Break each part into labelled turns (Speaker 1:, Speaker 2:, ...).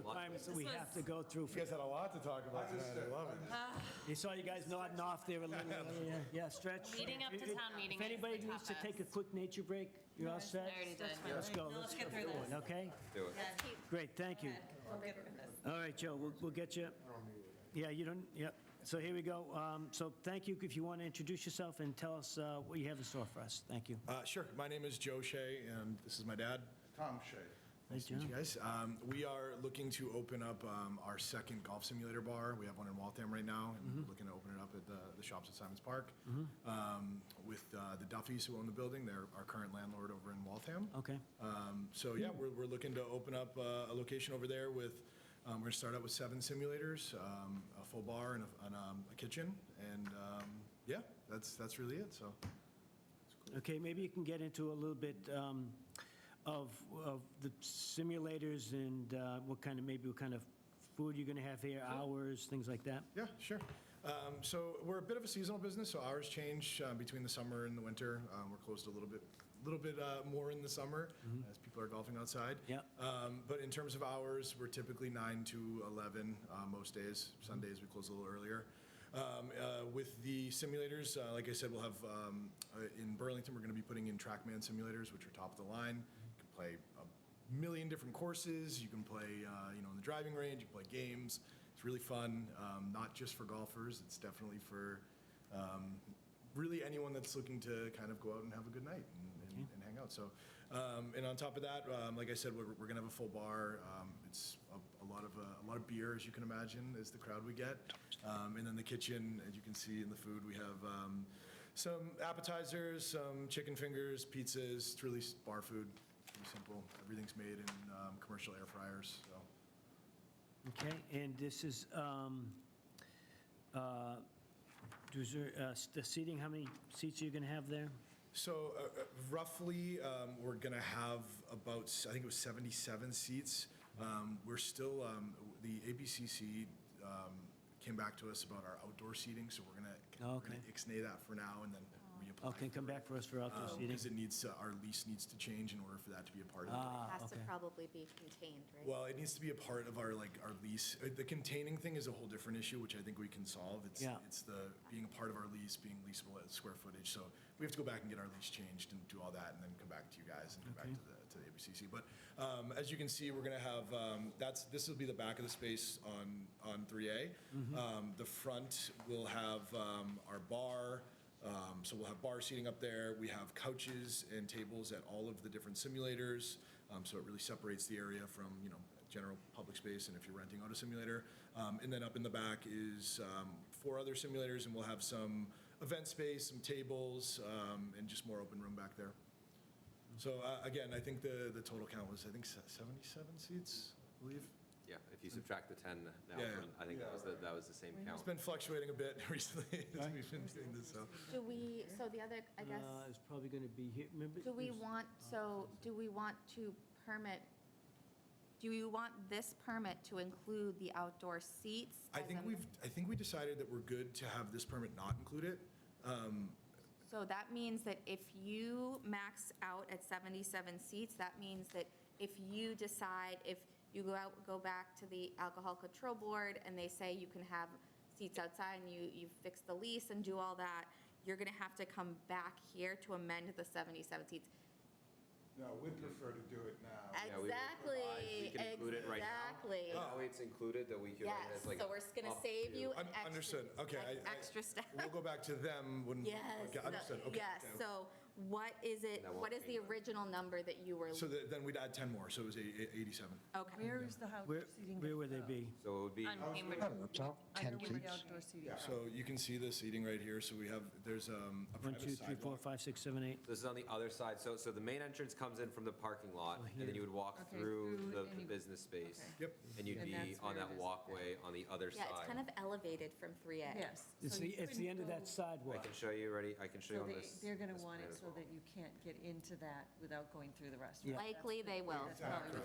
Speaker 1: requirements that we
Speaker 2: This
Speaker 1: have to
Speaker 2: was-
Speaker 1: go through.
Speaker 3: You guys had a lot to talk about tonight, I love it.
Speaker 1: You saw you guys nodding off there a little, yeah, yeah, stretch.
Speaker 2: Leading up to
Speaker 1: If-
Speaker 2: town meeting
Speaker 1: If
Speaker 2: is the
Speaker 1: anybody needs to
Speaker 2: toughest.
Speaker 1: take a quick nature break, you're all
Speaker 2: I
Speaker 1: set?
Speaker 2: already did.
Speaker 1: Let's go,
Speaker 4: No,
Speaker 1: let's
Speaker 4: let's
Speaker 1: get
Speaker 4: get through
Speaker 1: going,
Speaker 4: this.
Speaker 1: okay?
Speaker 5: Do it.
Speaker 4: Yeah, keep-
Speaker 1: Great, thank you.
Speaker 4: We'll get rid of this.
Speaker 1: All right, Joe, we'll, we'll get you. Yeah, you don't, yep. So here we go. Um, So thank you. If you want to introduce yourself and tell us uh, what you have in store for us. Thank you.
Speaker 3: Uh, Sure, my name is Joe Shea, and this is my dad.
Speaker 6: Tom Shea.
Speaker 1: Nice
Speaker 3: Thank you, guys. Um, We are looking to open up um, our second golf simulator bar. We have one in Waltham right now, and we're looking to open it up at the the shops at Simons Park. Um, With uh, the Duffys who own the building, they're our current landlord over in Waltham.
Speaker 1: Okay,
Speaker 3: Um, So yeah, we're, we're looking to open up uh, a location over there with, um, we're gonna start out with seven simulators, um, a full bar and a, and um, a kitchen, and um, yeah, that's, that's really it, so.
Speaker 1: okay, maybe you can get into a little bit um, of, of the simulators and uh, what kind of, maybe what kind of food you're going to have here, hours, things like that.
Speaker 3: Yeah, sure. Um, So we're a bit of a seasonal business, so hours change uh, between the summer and the winter. Um, We're closed a little bit, little bit uh, more in the summer as people are golfing outside.
Speaker 1: Yep.
Speaker 3: Um, But in terms of hours, we're typically nine to 11 uh, most days. Sundays, we close a little earlier. Um, uh, With the simulators, uh, like I said, we'll have, um, uh, in Burlington, we're going to be putting in TrackMan simulators, which are top of the line. You can play a million different courses. You can play, uh, you know, in the driving range, you can play games. It's really fun, um, not just for golfers. It's definitely for um, really anyone that's looking to kind of go out and have a good night and, and, and hang out. So, um, and on top of that, um, like I said, we're, we're gonna have a full bar. Um, it's a, a lot of uh, a lot of beer, as you can imagine, is the crowd we get. Um, and then the kitchen, as you can see in the food, we have um, some appetizers, some chicken fingers, pizzas. It's really s- bar food, pretty simple. Everything's made in um, commercial air fryers. So.
Speaker 1: Okay, and this is, um, uh, does there, uh, s- the seating, how many seats are you going to have there?
Speaker 3: So uh, uh, roughly, um, we're going to have about, s- I think it was 77 seats. Um, We're still, um, the ABCC um, came back to us about our outdoor seating, so we're going to, we're going
Speaker 1: Okay. Oh.
Speaker 3: to ixnay that for now and then reapply.
Speaker 1: Okay, come back for us for outdoor seating.
Speaker 3: Because Um, it needs, to- our lease needs to change in order for that to be a part of it.
Speaker 1: Ah,
Speaker 7: has to
Speaker 1: okay.
Speaker 7: probably be contained, right?
Speaker 3: Well, it needs to be a part of our, like, our lease. Uh, The containing thing is a whole different issue, which I think we can solve. It's,
Speaker 1: Yeah.
Speaker 3: it's the, being a part of our lease, being leasable at square footage. So we have to go back and get our lease changed and do all that, and then come back to you guys and come back to the, to the ABCC. But um, as you can see, we're gonna have, um, that's, this will be the back of the space on, on 3A. Um, The front will have um, our bar, um, So we'll have bar seating up there. We have couches and tables at all of the different simulators. Um, So it really separates the area from, you know, general public space and if you're renting out a simulator. Um, And then up in the back is um, four other simulators and we'll have some event space, some tables, um, and just more open room back there. So uh, again, I think the, the total count was, I think, se- 77 seats, I believe.
Speaker 5: Yeah, if you subtract the 10 now,
Speaker 3: Yeah, yeah.
Speaker 5: from- I think that was, the- that was the same count.
Speaker 3: It's been fluctuating a bit recently as we've been doing this, so.
Speaker 7: Do we, so the other, I guess,
Speaker 1: Uh, It's probably going to be here, remember?
Speaker 7: do we
Speaker 1: there's-
Speaker 7: want,
Speaker 3: uh,
Speaker 7: so do we want to permit, do you want this permit to include the outdoor seats?
Speaker 3: I
Speaker 7: as
Speaker 3: think
Speaker 7: a-
Speaker 3: we've, I think we decided that we're good to have this permit not include it. Um,
Speaker 7: So that means that if you max out at 77 seats, that means that if you decide, if you go out, go back to the Alcohol Control Board and they say you can have seats outside and you, you fix the lease and do all that, you're going to have to come back here to amend the 77 seats.
Speaker 6: No, we'd prefer to do it
Speaker 7: Uh,
Speaker 6: now.
Speaker 5: Yeah, we will provide- we
Speaker 7: Exactly,
Speaker 5: can include it right now.
Speaker 3: Oh,
Speaker 7: exactly.
Speaker 5: That way Oh, it's included that we can.
Speaker 7: Yes,
Speaker 5: it's like
Speaker 7: so we're just going to
Speaker 5: up
Speaker 7: save
Speaker 5: to-
Speaker 7: you an
Speaker 3: Un-
Speaker 7: extra.
Speaker 3: Understood, okay. I-
Speaker 7: ex-
Speaker 3: I-
Speaker 7: Extra step.
Speaker 3: We'll go back to them when.
Speaker 7: Yes.
Speaker 3: okay,
Speaker 7: no,
Speaker 3: Understood, okay.
Speaker 7: Yes, so what is it,
Speaker 5: That won't
Speaker 7: what is the
Speaker 5: change.
Speaker 7: original number that you were?
Speaker 3: So that- then we'd add 10 more, so it was eight- eight- 87.
Speaker 7: Okay,
Speaker 8: Where is the house
Speaker 1: Where,
Speaker 8: seating?
Speaker 1: where would they be?
Speaker 5: So it would be,
Speaker 2: On Cambridge.
Speaker 8: Under where the outdoor seating. is.
Speaker 3: So you can see this seating right here, so we have, there's um, a
Speaker 1: One,
Speaker 3: private
Speaker 1: two, three, four,
Speaker 3: sidewalk.
Speaker 1: five, six, seven, eight.
Speaker 5: this is on the other side. So, so the main entrance comes in from the parking lot and then you would walk
Speaker 8: Okay,
Speaker 5: through
Speaker 8: through
Speaker 5: the
Speaker 8: and
Speaker 5: the
Speaker 8: you-
Speaker 5: business space.
Speaker 8: okay.
Speaker 3: Yep.
Speaker 5: And you'd
Speaker 8: And
Speaker 5: be
Speaker 8: that's
Speaker 5: on
Speaker 8: where it
Speaker 5: that
Speaker 8: is.
Speaker 5: walkway on the other
Speaker 7: yeah, it's kind
Speaker 5: side.
Speaker 7: of elevated from 3A.
Speaker 8: Yes.
Speaker 1: It's
Speaker 8: so you
Speaker 1: the, it's the
Speaker 8: couldn't
Speaker 1: end of
Speaker 8: go-
Speaker 1: that
Speaker 5: I
Speaker 1: sidewalk.
Speaker 5: can show you already, I can show you
Speaker 8: So
Speaker 5: on
Speaker 8: they,
Speaker 5: this.
Speaker 8: they're going
Speaker 5: this
Speaker 8: to want
Speaker 5: plan
Speaker 8: it
Speaker 5: as
Speaker 8: so
Speaker 5: well.
Speaker 8: that you can't get into that without going through the restaurant.
Speaker 7: Likely they will.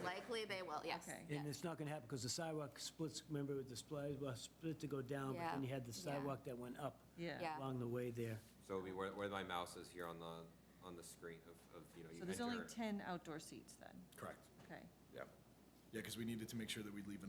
Speaker 7: Likely they will, yes.
Speaker 8: Okay. And
Speaker 7: yes.
Speaker 1: And it's not going to happen because the sidewalk splits, remember with the split, well, split to go down, but then
Speaker 7: Yeah,
Speaker 1: you had the
Speaker 7: yeah.
Speaker 1: sidewalk that went up
Speaker 8: Yeah.
Speaker 7: Yeah.
Speaker 1: along the way there.
Speaker 5: So it'd be where, where my mouse is here on the, on the screen of, of, you know, you
Speaker 8: So there's only
Speaker 5: enter.
Speaker 8: 10 outdoor seats then,
Speaker 3: Correct,
Speaker 8: okay?
Speaker 3: yeah. Yeah, because we needed to make sure that we'd leave